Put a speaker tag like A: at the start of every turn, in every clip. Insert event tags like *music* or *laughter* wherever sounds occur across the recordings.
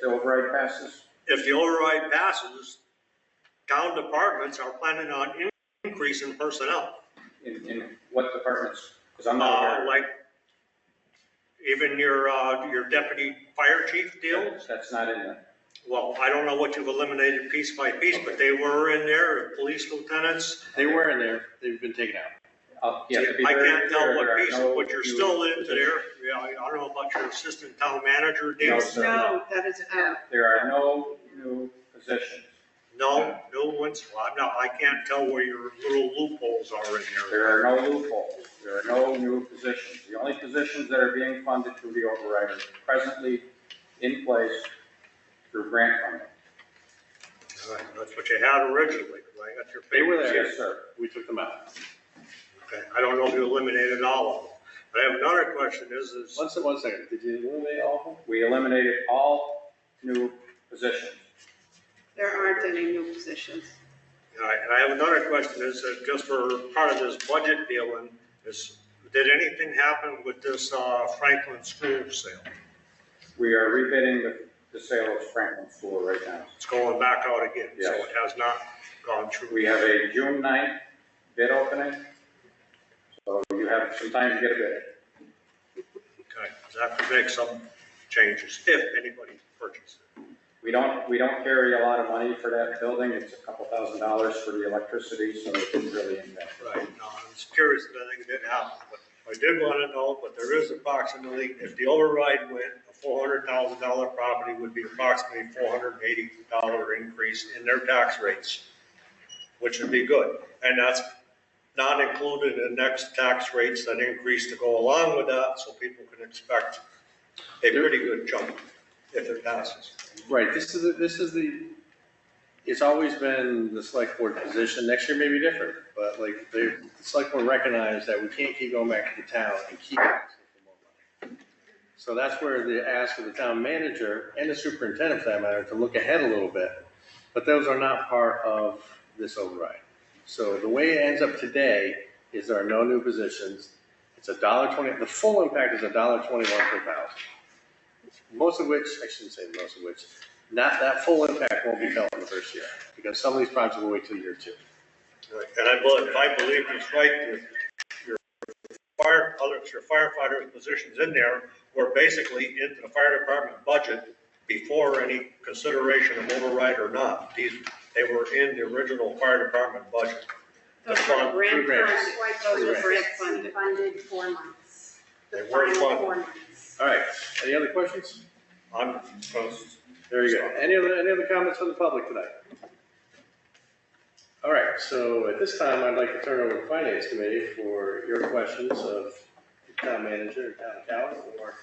A: the override passes?
B: If the override passes, town departments are planning on in- increase in personnel.
A: In, in what departments? Because I'm not
B: Uh,
A: aware.
B: like even your, uh, your deputy fire chief deal.
A: That's not in there.
B: Well, I don't know what you've eliminated piece by piece, but they were in there, police lieutenants.
C: They were in there, they've been taken out.
A: I'll-
B: I
A: yeah, uh, to be very
B: can't tell
A: clear, there
B: what
A: are
B: piece,
A: no
B: but you're
A: new
B: still into
A: positions.
B: there. Yeah, I I don't know about your assistant town manager
A: No,
B: deal.
A: sir.
D: No, that is uh, out.
A: There are no new positions.
B: No, no one's, well, I'm not, I can't tell where your little loopholes are in there.
A: There are no loopholes. There are no new positions. The only positions that are being funded through the override are presently in place through grant funding.
B: All right, Uh, That's what you had originally, right? That's your
C: They were
B: papers.
C: there.
A: Yes, sir.
C: We took them out.
B: Okay, I don't know if you eliminated all of them. But I have another question is, is, uh,
C: One second, one second, did you eliminate all of them?
A: We eliminated all new positions.
D: There aren't any new positions.
B: all right, and I have another question is, that just for part of this budget deal, and is, did anything happen with this uh, Franklin School sale?
A: We are rebidding the, the sale of Franklin School right now.
B: It's going back out again, so
A: Yes.
B: it has not gone through.
A: We have a June 9th bid opening, so you have some time to get a bid.
B: Okay, so I have to make some changes, if anybody purchases.
A: We don't, we don't carry a lot of money for that building, it's a couple thousand dollars for the electricity, so it didn't really impact.
B: Right, no, I was curious if anything did happen, but I did want to know, but there is approximately, if the override went, a four hundred thousand dollar property would be approximately four hundred and eighty dollar increase in their tax rates, which would be good, and that's not included in next tax rates that increase to go along with that, so people can expect a pretty good jump if it passes.
C: Right, this is, the- this is the, it's always been the select board position, next year may be different, but like, they- the select board recognized that we can't keep going back to the town and keep asking for more money. So that's where the ask of the town manager and the superintendent for that matter, to look ahead a little bit, but those are not part of this override. So the way it ends up today is there are no new positions, it's a dollar twenty, the full impact is a dollar twenty-one per thousand most of which, I shouldn't say most of which, not that full impact won't be felt in the first year, because some of these projects will wait till year two.
B: Right, And I believe, if I believe it's right, your, your fire, other, your firefighter positions in there were basically into the fire department budget before any consideration of override or not. These, they were in the original fire department budget.
D: Those
B: That's
D: were
B: fine.
D: grant
C: Grants.
D: funds, those were grant funded.
E: Funded four months. The
B: They weren't
E: final
B: funded.
E: four months.
C: All right, any other questions?
B: I'm,
C: There you go. Any other, any other comments from the public tonight? All right, so at this time, I'd like to turn over to Finance Committee for your questions of the town manager, town accountant, or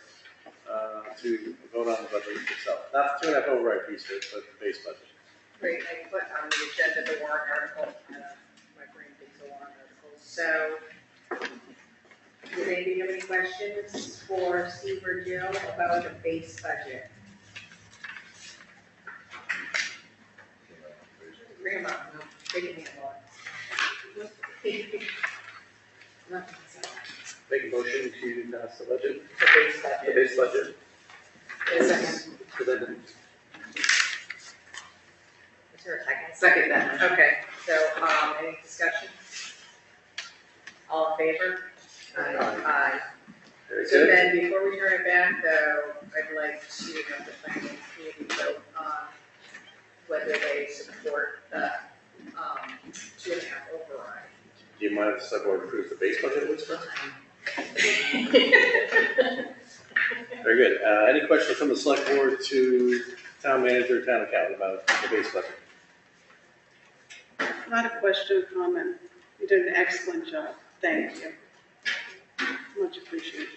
C: uh, to vote on the budget itself. Not the two and a half override piece, of it, but the base budget.
F: Great, I put on the agenda the warrant article, uh, my brain thinks a warrant article, so.
E: Does anybody have any questions for Steve or Jill about the base budget?
F: Grandma, no, they can handle it. *laughs* No, it's not.
G: Make a motion to pass the budget,
F: The base
G: the
F: budget.
G: base budget,
F: Is second.
G: presented.
F: Is there a second? Second then. Okay, so, um, any discussion? All in favor? Aye.
G: Very
F: So
G: good.
F: then, before we turn it back though, I'd like to have the finance committee vote on whether they support the, um, two and a half override.
C: Do you mind if the select board approves the base budget at least? Very good. Uh, any questions from the select board to town manager, town accountant about the base budget?
D: Not a question, comment. You did an excellent job. Thank you. Much appreciated.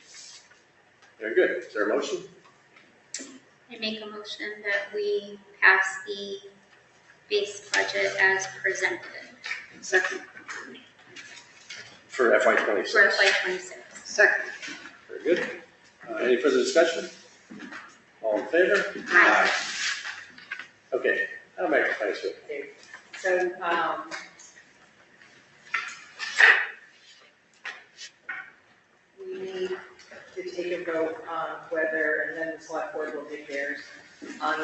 C: Very good. Is there a motion?
H: I make a motion that we pass the base budget as presented
D: Second,
C: For FY twenty-six?
H: for FY twenty-six.
D: second.
C: Very good. Uh, any further discussion? All in favor?
H: Aye.
C: Okay, I'll make a place with.
F: So, um, we need to take a vote on whether, and then the select board will do theirs, on